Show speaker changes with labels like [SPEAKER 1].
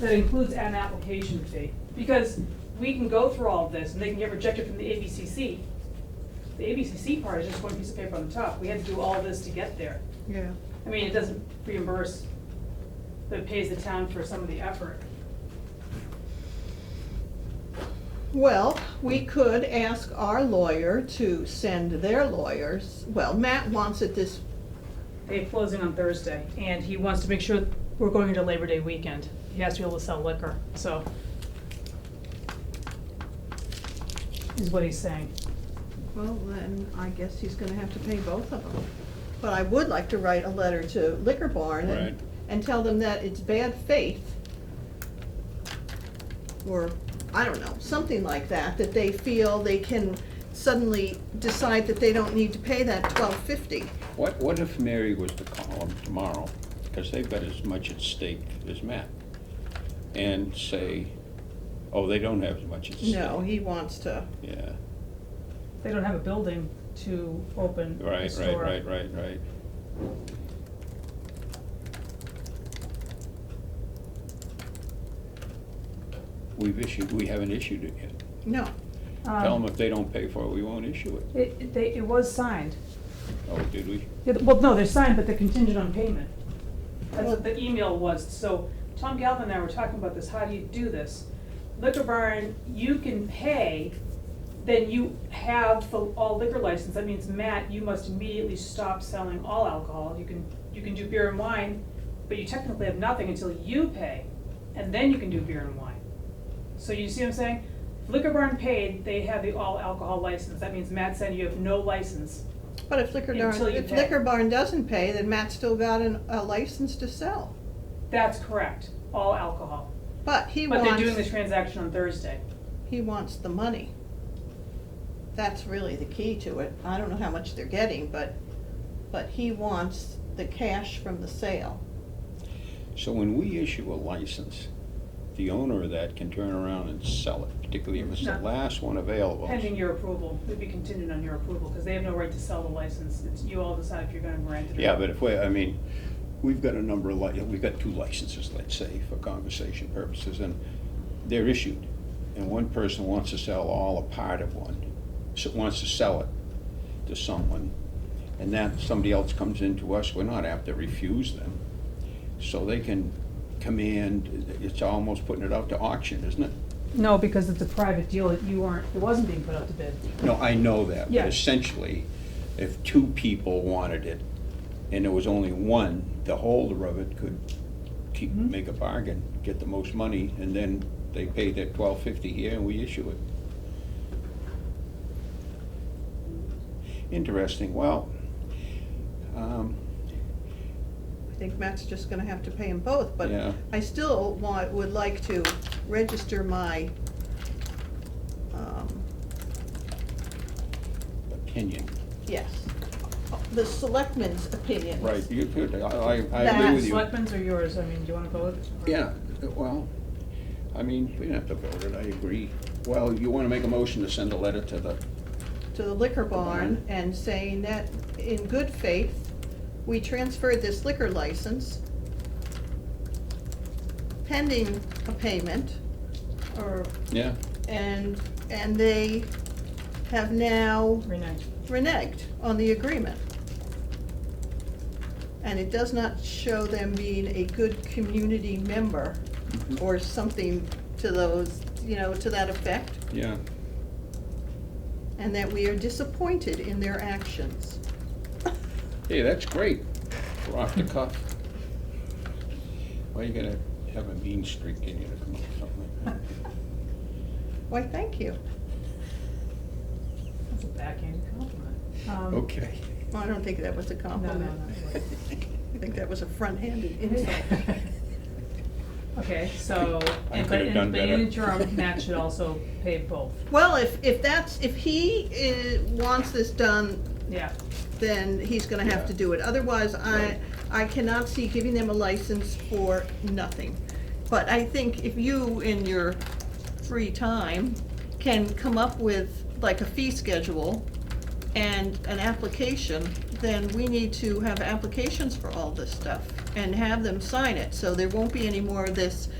[SPEAKER 1] that includes an application fee. Because we can go through all of this and they can get rejected from the ABCC. The ABCC part is just one piece of paper on the top. We had to do all this to get there.
[SPEAKER 2] Yeah.
[SPEAKER 1] I mean, it doesn't reimburse, but it pays the town for some of the effort.
[SPEAKER 2] Well, we could ask our lawyer to send their lawyers, well, Matt wants it this,
[SPEAKER 1] They have closing on Thursday, and he wants to make sure we're going into Labor Day weekend. He has to be able to sell liquor, so. Is what he's saying.
[SPEAKER 2] well, then I guess he's gonna have to pay both of them. But I would like to write a letter to Liquor Barn
[SPEAKER 3] Right.
[SPEAKER 2] and, and tell them that it's bad faith. Or, I don't know, something like that, that they feel they can suddenly decide that they don't need to pay that twelve fifty.
[SPEAKER 3] What, what if Mary was to call him tomorrow, because they've got as much at stake as Matt, and say, oh, they don't have as much at stake?
[SPEAKER 2] No, he wants to,
[SPEAKER 3] Yeah,
[SPEAKER 1] They don't have a building to open the
[SPEAKER 3] right, right,
[SPEAKER 1] store.
[SPEAKER 3] right, right, right. We've issued, we haven't issued it yet.
[SPEAKER 2] no,
[SPEAKER 1] Um,
[SPEAKER 3] Tell them if they don't pay for it, we won't issue it.
[SPEAKER 1] It, it- they, it was signed.
[SPEAKER 3] Oh, did we?
[SPEAKER 1] Yeah, Well, no, they're signed, but they're contingent on payment. That's what the email was, so Tom Galvin and I were talking about this, how do you do this? Liquor barn, you can pay, then you have the all liquor license, that means Matt, you must immediately stop selling all alcohol. You can, you can do beer and wine, but you technically have nothing until you pay, and then you can do beer and wine. So you see what I'm saying? Liquor barn paid, they have the all alcohol license, that means Matt said you have no license
[SPEAKER 2] But if Liquor Darn,
[SPEAKER 1] Until you
[SPEAKER 2] if
[SPEAKER 1] pay.
[SPEAKER 2] Liquor Barn doesn't pay, then Matt's still got an, a license to sell.
[SPEAKER 1] That's correct, all alcohol.
[SPEAKER 2] But he
[SPEAKER 1] But they're doing the
[SPEAKER 2] wants,
[SPEAKER 1] transaction on Thursday.
[SPEAKER 2] he wants the money. That's really the key to it. I don't know how much they're getting, but, but he wants the cash from the sale.
[SPEAKER 3] So when we issue a license, the owner of that can turn around and sell it, particularly if it's the
[SPEAKER 1] No.
[SPEAKER 3] last one available.
[SPEAKER 1] Pending your approval, it would be contingent on your approval, because they have no right to sell the license. It's, you all decide if you're gonna grant it or
[SPEAKER 3] Yeah,
[SPEAKER 1] not.
[SPEAKER 3] but if we, I mean, we've got a number of, li- we've got two licenses, let's say, for conversation purposes, and they're issued. And one person wants to sell all or part of one, so wants to sell it to someone, and that, somebody else comes into us, we're not apt to refuse them. So they can command, it's almost putting it out to auction, isn't it?
[SPEAKER 1] No, because it's a private deal, that you weren't, it wasn't being put out to bid.
[SPEAKER 3] No, I know that,
[SPEAKER 1] Yeah.
[SPEAKER 3] but essentially, if two people wanted it, and there was only one, the holder of it could keep,
[SPEAKER 1] Mhm.
[SPEAKER 3] make a bargain, get the most money, and then they pay that twelve fifty here and we issue it. Interesting, well, um,
[SPEAKER 2] I think Matt's just gonna have to pay them both, but
[SPEAKER 3] Yeah.
[SPEAKER 2] I still want, would like to register my, um,
[SPEAKER 3] opinion,
[SPEAKER 2] yes, the selectmen's opinions.
[SPEAKER 3] right, you could, I, I, I agree with you.
[SPEAKER 1] Selectmen's or yours, I mean, do you wanna vote?
[SPEAKER 3] Yeah, well, I mean, we don't have to vote it, I agree. Well, you wanna make a motion to send a letter to the
[SPEAKER 2] to the liquor barn
[SPEAKER 3] barn.
[SPEAKER 2] and saying that in good faith, we transferred this liquor license pending a payment or,
[SPEAKER 3] Yeah,
[SPEAKER 2] and, and they have now
[SPEAKER 1] Renee.
[SPEAKER 2] reneged on the agreement. And it does not show them being a good community member
[SPEAKER 3] Mhm.
[SPEAKER 2] or something to those, you know, to that effect,
[SPEAKER 3] yeah.
[SPEAKER 2] and that we are disappointed in their actions.
[SPEAKER 3] Hey, that's great. We're off the cuff. Why you gotta have a mean streak in you to come up with something like that?
[SPEAKER 2] Why, thank you.
[SPEAKER 1] That's a backhanded compliment. Um,
[SPEAKER 3] Okay.
[SPEAKER 2] Well, I don't think that was a
[SPEAKER 1] No, no,
[SPEAKER 2] compliment.
[SPEAKER 1] no.
[SPEAKER 2] I think that was a front-handed insult.
[SPEAKER 1] Okay, so,
[SPEAKER 3] I
[SPEAKER 1] and- but
[SPEAKER 3] could've done
[SPEAKER 1] in, but in
[SPEAKER 3] better.
[SPEAKER 1] interim, Matt should also pay both,
[SPEAKER 2] Well, if, if that's, if he uh, wants this done,
[SPEAKER 1] yeah.
[SPEAKER 2] then he's gonna have to
[SPEAKER 3] Yeah.
[SPEAKER 2] do it. Otherwise, I,
[SPEAKER 3] Right.
[SPEAKER 2] I cannot see giving them a license for nothing. But I think if you, in your free time, can come up with like a fee schedule and an application, then we need to have applications for all this stuff and have them sign it. So there won't be any more of this,